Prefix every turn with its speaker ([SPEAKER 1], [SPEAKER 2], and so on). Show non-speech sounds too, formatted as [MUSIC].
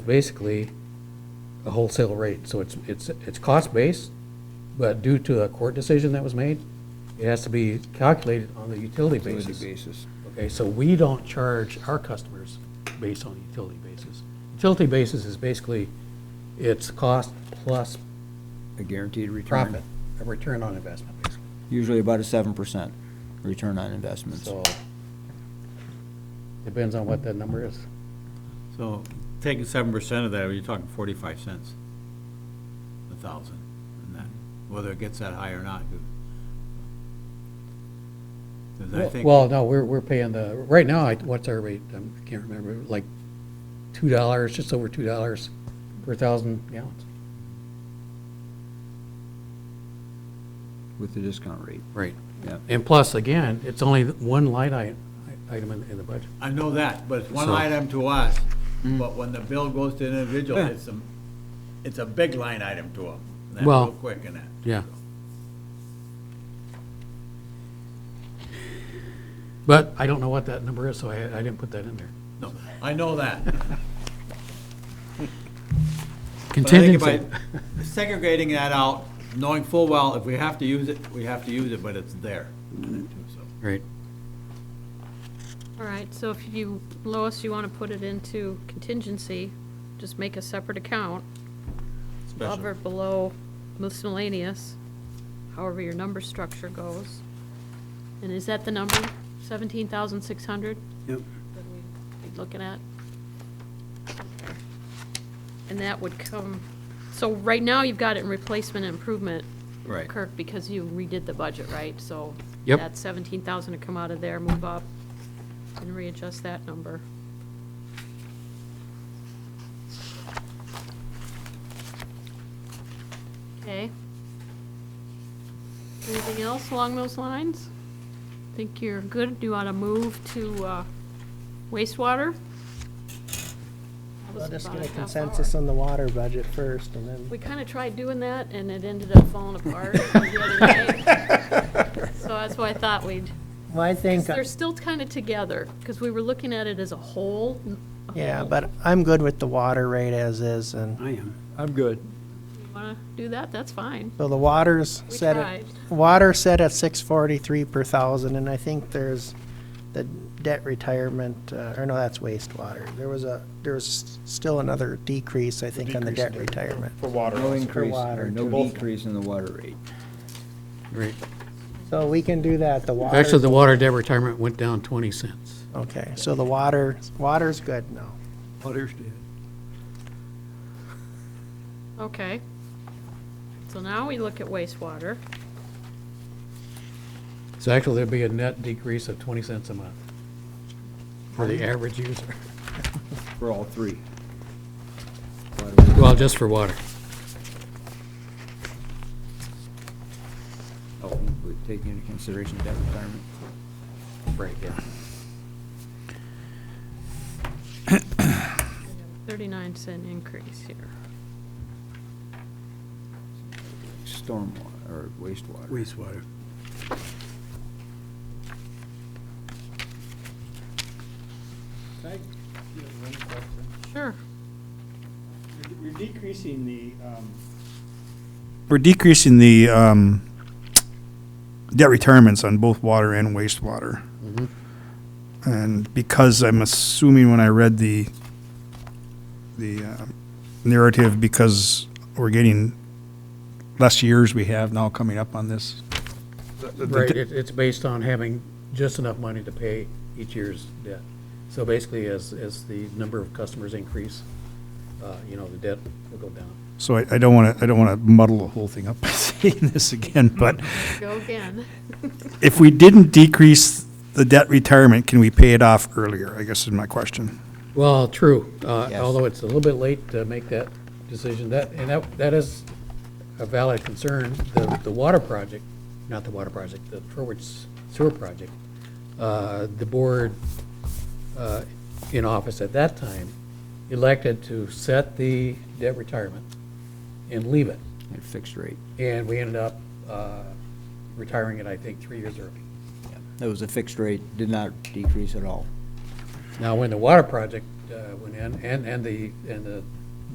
[SPEAKER 1] basically a wholesale rate, so it's, it's, it's cost-based, but due to a court decision that was made, it has to be calculated on the utility
[SPEAKER 2] Utility
[SPEAKER 1] basis.
[SPEAKER 2] basis.
[SPEAKER 1] Okay, so we don't charge our customers based on utility basis. Utility basis is basically, it's cost plus
[SPEAKER 2] A guaranteed return.
[SPEAKER 1] profit, a return on investment, basically.
[SPEAKER 2] Usually about a seven percent return on investments.
[SPEAKER 1] So, depends on what that number is.
[SPEAKER 3] So taking seven percent of that, you're talking forty-five cents a thousand, and that, whether it gets that high or not. 'cause I think,
[SPEAKER 1] Well, no, we're, we're paying the, right now, I- what's our rate? Um, I can't remember, like two dollars, just over two dollars per thousand gallons.
[SPEAKER 2] With the discount rate,
[SPEAKER 1] Right.
[SPEAKER 2] yeah.
[SPEAKER 1] And plus, again, it's only one line i- item in, in the budget.
[SPEAKER 3] I know that, but it's one
[SPEAKER 1] So-
[SPEAKER 3] line item to us,
[SPEAKER 1] Mm.
[SPEAKER 3] but when the bill goes to an individual, it's a, it's a big line item to them. That's
[SPEAKER 1] Well-
[SPEAKER 3] real quick in that.
[SPEAKER 1] Yeah. But I don't know what that number is, so I, I didn't put that in there.
[SPEAKER 3] No, I know
[SPEAKER 1] [LAUGHS]
[SPEAKER 3] that. but I think by
[SPEAKER 1] Contingency,
[SPEAKER 3] Segregating that out, knowing full well, if we have to use it, we have to use it, but it's there. in it too, so.
[SPEAKER 1] right.
[SPEAKER 4] All right, so if you, Lois, you want to put it into contingency, just make a separate account, above or below miscellaneous, however your number structure goes. And is that the number, seventeen thousand six hundred?
[SPEAKER 3] Yep.
[SPEAKER 4] That we'd be looking at? And that would come, so right now you've got it in replacement and improvement.
[SPEAKER 2] Right.
[SPEAKER 4] Kirk, because you redid the budget, right? So.
[SPEAKER 1] Yep.
[SPEAKER 4] That seventeen thousand to come out of there, move up, and readjust that number. Okay. Anything else along those lines? Think you're good? Do you want to move to uh, wastewater? That was
[SPEAKER 5] Let us
[SPEAKER 4] about
[SPEAKER 5] get a
[SPEAKER 4] half hour.
[SPEAKER 5] consensus on the water budget first, and then,
[SPEAKER 4] We kind of tried doing that, and it ended up falling apart the other night. So that's why I thought we'd,
[SPEAKER 5] well, I think,
[SPEAKER 4] they're still kind of together, because we were looking at it as a whole. "Mm, a
[SPEAKER 5] uh, yeah,
[SPEAKER 4] whole.
[SPEAKER 5] but I'm good with the water rate as is, and,
[SPEAKER 2] I'm good.
[SPEAKER 4] You want to do that? That's fine.
[SPEAKER 5] so the water's
[SPEAKER 4] We
[SPEAKER 5] set
[SPEAKER 4] tried.
[SPEAKER 5] at, water set at six forty-three per thousand, and I think there's the debt retirement, uh, or no, that's wastewater. There was a, there was still another decrease, I think, on the debt retirement.
[SPEAKER 6] For water.
[SPEAKER 2] No
[SPEAKER 6] also.
[SPEAKER 2] increase,
[SPEAKER 5] water,
[SPEAKER 2] or no
[SPEAKER 5] too.
[SPEAKER 2] decrease in the water rate.
[SPEAKER 1] Right.
[SPEAKER 5] So we can do that, the water.
[SPEAKER 1] Actually, the water debt retirement went down twenty cents.
[SPEAKER 5] Okay, so the water, water's good now.
[SPEAKER 4] Okay. So now we look at wastewater.
[SPEAKER 1] So actually, there'd be a net decrease of twenty cents a month for the average user.
[SPEAKER 2] For all three.
[SPEAKER 1] Well, just for water.
[SPEAKER 2] Oh, we take into consideration debt retirement.
[SPEAKER 1] Right, yeah.
[SPEAKER 4] Thirty-nine cent increase here.
[SPEAKER 2] Stormwater, or wastewater.
[SPEAKER 3] Wastewater.
[SPEAKER 4] Sure.
[SPEAKER 6] We're decreasing the, um. We're decreasing the, um, debt retirements on both water and wastewater. And because I'm assuming when I read the, the, uh, narrative, because we're getting less years we have now coming up on this. the- the-
[SPEAKER 1] Right, it, it's based on having just enough money to pay each year's debt. So basically, as, as the number of customers increase, uh, you know, the debt will go down.
[SPEAKER 6] So I, I don't wanna, I don't wanna muddle the whole thing up by [LAUGHS] saying this again, but
[SPEAKER 4] Go again.
[SPEAKER 6] if we didn't decrease the debt retirement, can we pay it off earlier, I guess is my question.
[SPEAKER 1] Well, true, uh,
[SPEAKER 2] Yes.
[SPEAKER 1] although it's a little bit late to make that decision, that, and that, that is a valid concern. The, the water project, not the water project, the Forward Sewer Project, uh, the board uh, in office at that time elected to set the debt retirement and leave it.
[SPEAKER 2] At a fixed rate.
[SPEAKER 1] And we ended up uh, retiring it, I think, three years early.
[SPEAKER 2] That was a fixed rate, did not decrease at all.
[SPEAKER 1] Now, when the water project uh, went in, and, and the, and the